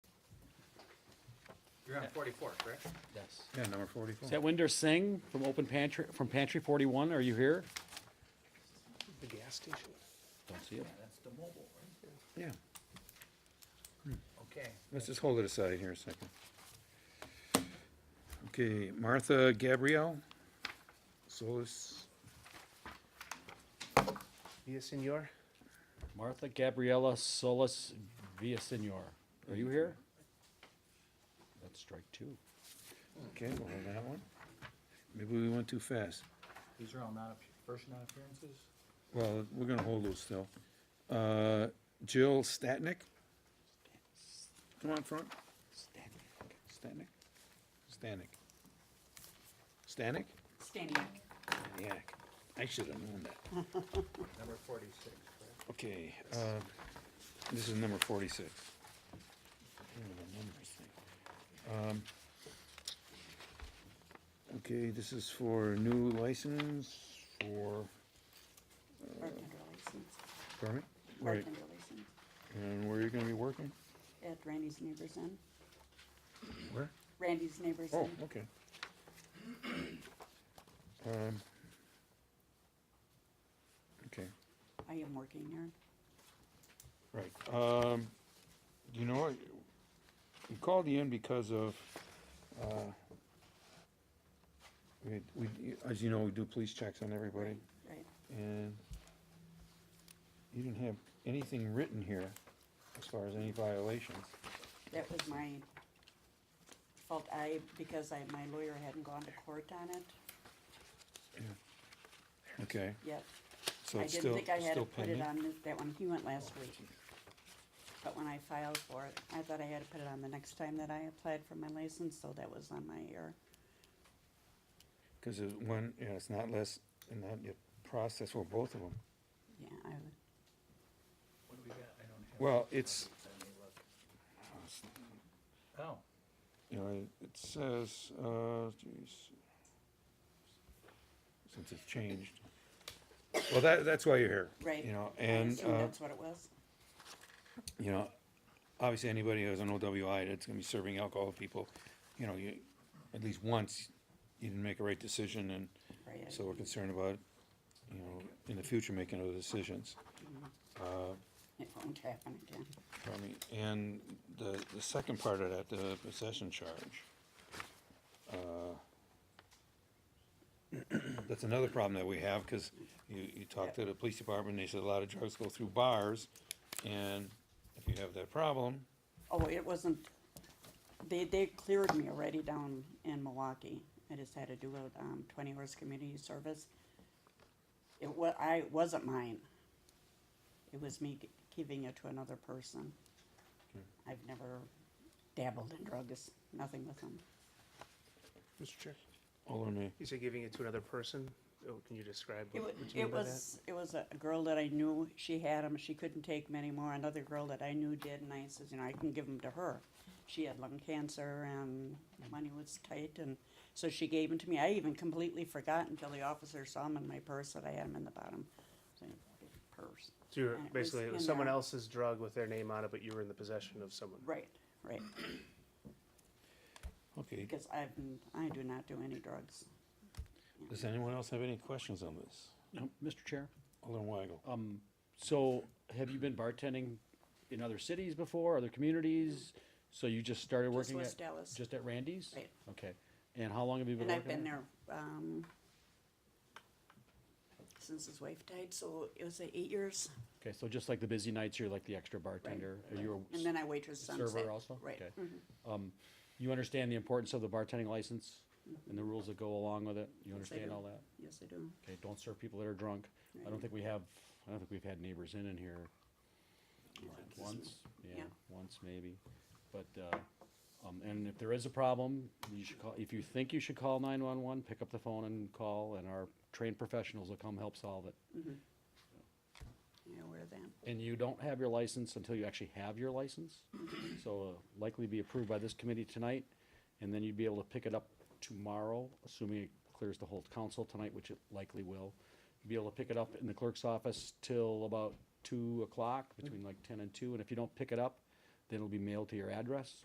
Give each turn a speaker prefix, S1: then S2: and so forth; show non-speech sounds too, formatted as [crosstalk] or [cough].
S1: You're on forty-four, correct?
S2: Yes.
S3: Yeah, number forty-four.
S2: Is that Winder Singh from Open Pantry, from Pantry 41? Are you here?
S4: The gas station.
S2: Don't see it.
S1: That's the mobile, right?
S3: Yeah,
S1: Okay.
S3: let's just hold it aside here a second. Okay, Martha Gabrielle, Solis,
S4: Yes, senor.
S2: Martha Gabriela Solis Villasenor. Are you here? That's strike two.
S3: okay, we'll hold that one. Maybe we went too fast.
S1: These are all non, first non-appearances?
S3: Well, we're gonna hold those still. Uh, Jill Statnick? Come on front, Statnick? Stanick. Stanick?
S5: Standing back.
S3: Yeah, I should have known that.
S1: Number forty-six, correct?
S3: Okay, uh, this is number forty-six. Look at the numbers thing. Um, Okay, this is for new license for,
S5: Bartender license.
S3: permit, right,
S5: Bartender license.
S3: and where you're gonna be working?
S5: At Randy's Neighbors Inn.
S3: Where?
S5: Randy's Neighbors
S3: Oh,
S5: Inn.
S3: okay. Um. Okay,
S5: I am working there.
S3: right, um, you know, what? we called you in because of, uh, we, we, as you know, we do police checks on everybody,
S5: Right.
S3: and you didn't have anything written here as far as any violations.
S5: That was my fault. I, because I, my lawyer hadn't gone to court on it
S3: Okay,
S5: yet.
S3: so
S5: I
S3: it's
S5: didn't
S3: still,
S5: think I had to
S3: still
S5: put it
S3: pending?
S5: on th- that one. He went last week. But when I filed for it, I thought I had to put it on the next time that I applied for my license, so that was on my error.
S3: Cause it, one, yeah, it's not less, and not your process, well, both of them.
S5: Yeah, I would.
S1: What do we got? I don't have.
S3: Well, it's,
S1: Let me look. Oh,
S3: you know, it says, uh, geez, since it's changed. Well, that, that's why you're here.
S5: Right.
S3: You know,
S5: I
S3: and,
S5: assumed
S3: uh,
S5: That's what it was.
S3: you know, obviously, anybody who has an OWI that's gonna be serving alcohol to people, you know, you, at least once, you didn't make a right decision, and
S5: Right, I-
S3: so we're concerned about, you know, in the future, making other decisions.
S5: It won't happen again.
S3: I mean, and the, the second part of that, the possession charge. uh, [clears throat] That's another problem that we have, cause you, you talk to the police department, they said a lot of drugs go through bars, and if you have that problem,
S5: Oh, it wasn't, they, they cleared me already down in Milwaukee. I just had to do a, um, twenty hours community service. It wa, I, it wasn't mine. It was me g- giving it to another person. I've never dabbled in drugs, nothing with them.
S4: Mr. Chair.
S3: all on me.
S4: You say giving it to another person? Oh, can you describe
S5: It
S4: what,
S5: wa,
S4: what you mean
S5: it
S4: by that?
S5: was, it was a girl that I knew, she had them, she couldn't take them anymore, another girl that I knew did, and I says, you know, I can give them to her. She had lung cancer and money was tight, and so she gave them to me, I even completely forgot until the officer saw them in my purse, that I had them in the bottom, so, purse.
S4: So you're,
S5: and it was
S4: basically, it was
S5: in
S4: someone
S5: there.
S4: else's drug with their name on it, but you were in the possession of someone.
S5: Right, right,
S3: Okay,
S5: because I've, I do not do any drugs.
S3: does anyone else have any questions on this?
S2: No, Mr. Chair,
S3: Alderman Weigel?
S2: so have you been bartending in other cities before, other communities? So you just started working at?
S5: West Dallas.
S2: Just at Randy's?
S5: Right.
S2: Okay. And how long have you been
S5: And
S2: working?
S5: I've been there, um, since his wife died, so it was uh, eight years.
S2: Okay, so just like the busy nights, you're like the extra bartender, or you're a
S5: And then I waitress sunset.
S2: server also?
S5: Right. Mm.
S2: Okay. Um, you understand the importance of the bartending license and the rules that go along with it? You
S5: Yes, I
S2: understand
S5: do.
S2: all that?
S5: Yes, I do.
S2: Okay, don't serve people that are drunk. I don't
S5: Right.
S2: think we have, I don't think we've had neighbors in in here once, yeah,
S5: Yeah.
S2: once maybe. But, uh, um, and if there is a problem, you should call, if you think you should call nine-one-one, pick up the phone and call, and our trained professionals will come help solve it.
S5: Yeah, wear that.
S2: And you don't have your license until you actually have your license. So uh, likely be approved by this committee tonight, and then you'd be able to pick it up tomorrow, assuming it clears the whole council tonight, which it likely will. Be able to pick it up in the clerk's office till about two o'clock, between like ten and two, and if you don't pick it up, then it'll be mailed to your address.